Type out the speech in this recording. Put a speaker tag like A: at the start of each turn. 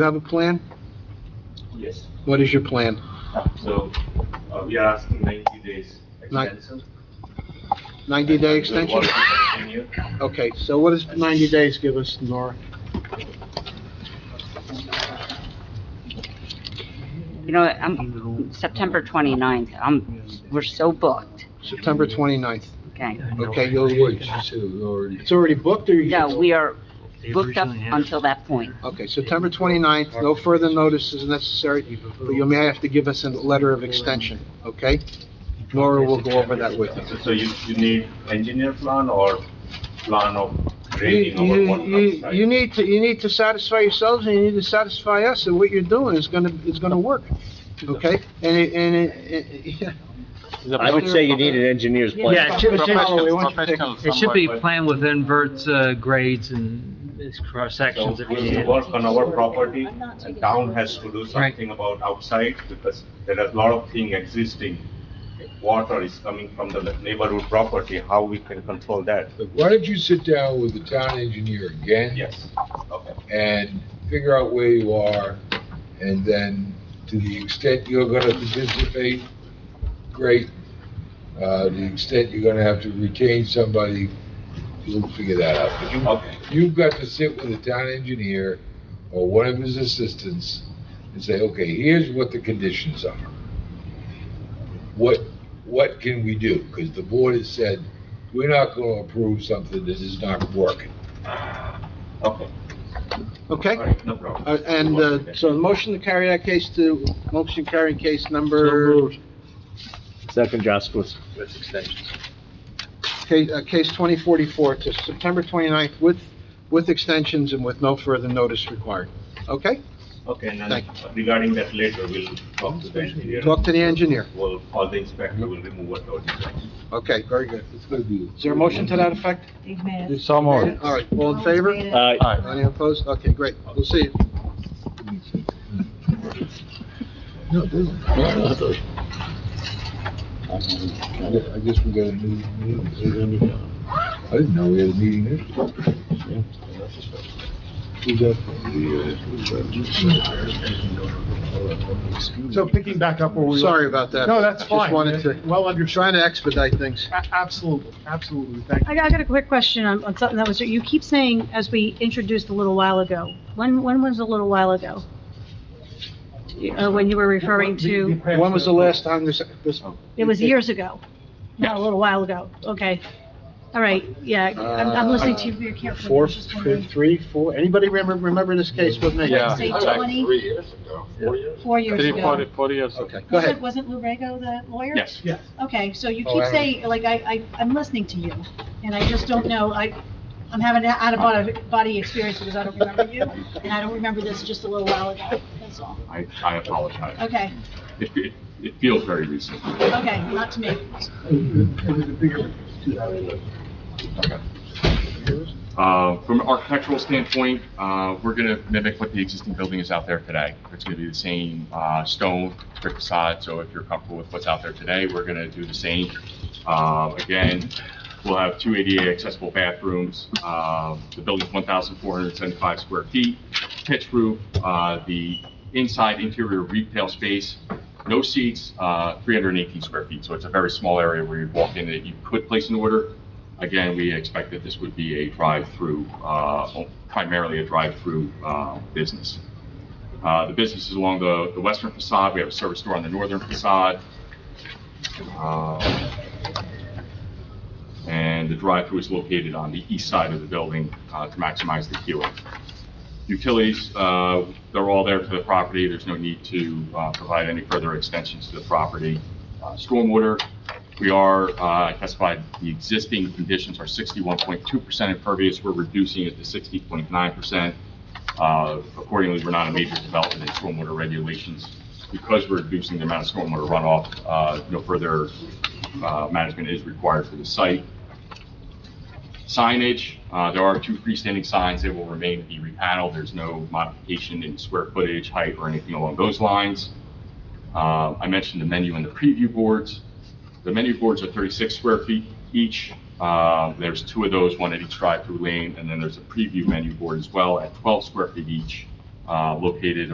A: You have a plan?
B: Yes,
A: What is your plan?
B: so, uh, we are asking ninety days
A: Nine-
B: extension.
A: 90-day
B: And we
A: extension?
B: want to continue.
A: Okay, so what does 90 days give us, Nora?
C: You know, uh, I'm, September 29th, I'm, we're so booked,
A: September 29th.
C: okay?
A: Okay, you'll, it's already booked or you?
C: No, we are booked up until that point.
A: Okay, September 29th, no further notice is necessary, but you may have to give us a letter of extension, okay? Nora will go over that with you.
B: So- So you, you need engineer plan or plan of grading
A: You,
B: over what
A: you,
B: comes,
A: you- you
B: right?
A: need to, you need to satisfy yourselves and you need to satisfy us and what you're doing is gonna, is gonna work, okay? And, it- and, it- it-
D: I would say you need an engineer's plan.
E: Yeah, it should, it should,
A: Professional- professional
E: it should be planned with invert uh, grades and cross
B: So
E: sections if
B: we'll
E: needed.
B: work on our property, and town has to do something about outside, because there is a lot of thing existing. Water is coming from the neighborhood property, how we can control that?
F: Why don't you sit down with the town engineer again?
B: Yes, okay.
F: And figure out where you are, and then to the extent you're gonna participate, great. Uh, the extent you're gonna have to retain somebody, we'll figure that out. But you,
B: Okay,
F: you've got to sit with the town engineer or one of his assistants and say, okay, here's what the conditions are. What, what can we do? Because the board has said, we're not gonna approve something that is not working.
B: okay,
A: okay?
B: all right, no problem.
A: Uh, And uh, so the motion to carry that case to, motion carrying case number,
D: Second, Josquith.
A: ca- uh, case 2044 to September 29th with, with extensions and with no further notice required. Okay?
B: Okay, and then
A: Thank
B: regarding that later, we'll talk to the engineer.
A: Talk to the engineer.
B: We'll, or the inspector will remove whatever. is there.
A: Okay, very good.
F: It's gonna be.
A: Is there a motion to that effect?
D: So
A: All right, all in favor?
D: Aye.
A: Any opposed? Okay, great. We'll see you.
F: No, it doesn't. I guess we got a new, new- I didn't know we had a meeting this. Who's that? uh,
G: So picking back up where we were.
A: Sorry about that.
G: No, that's fine.
A: Just wanted to,
G: Well
A: you're
G: understood.
A: trying to expedite things.
G: A- Absolutely, absolutely. Thank
H: I
G: you.
H: got, I got a quick question on, on something that was, you keep saying, as we introduced a little while ago, when, when was a little while ago? You- Uh, when you were referring to,
A: When was the last time this, this?
H: it was years ago, not a little while ago, okay. All right, yeah, I'm, I'm listening to you very carefully. I
A: Uh, Four,
H: was just wondering.
A: three, four? Anybody remember, remember this case with me?
I: Yeah.
H: Say
I: Back
H: 20?
I: Three years ago, four years?
H: Four years
I: Three, four,
H: ago.
I: four years ago.
A: Okay, go
H: Was it-
A: ahead.
H: Wasn't Lou Rego the lawyer?
I: Yes.
G: Yes.
H: Okay, so you
A: Oh,
H: keep
A: I-
H: saying, like, I, I, I'm listening to you, and I just don't know, I, I'm having an out-of-body experience because I don't remember you, and I don't remember this just a little while ago, that's all.
I: I, I apologize.
H: Okay,
I: It, it, it feels very recent.
H: okay, not to me.
G: It was a bigger-
I: Uh, From an architectural standpoint, uh, we're going to mimic what the existing building is out there today. It's going to be the same uh, stone brick facade, so if you're comfortable with what's out there today, we're going to do the same. Uh, Again, we'll have two ADA accessible bathrooms. Uh, The building's 1,475 square feet, pitch roof, uh, the inside interior retail space, no seats, uh, 318 square feet, so it's a very small area where you walk in that you could place an order. Again, we expect that this would be a drive-through, uh, primarily a drive-through uh, business. Uh, The business is along the the western facade, we have a service store on the northern facade. Uh, And the drive-through is located on the east side of the building uh, to maximize the queuing. Utilities, uh, they're all there for the property, there's no need to uh, provide any further extensions to the property. Uh, Stormwater, we are, uh, I testified, the existing conditions are 61.2% impervious, we're reducing it to 60.9%. Uh, Accordingly, we're not a major development in stormwater regulations. Because we're reducing the amount of stormwater runoff, uh, no further uh, management is required for the site. Signage, uh, there are two freestanding signs, they will remain to be repaneled, there's no modification in square footage, height, or anything along those lines. Uh, I mentioned the menu and the preview boards. The menu boards are 36 square feet each. Uh, There's two of those, one at each drive-through lane, and then there's a preview menu board as well at 12 square feet each. Uh, uh, located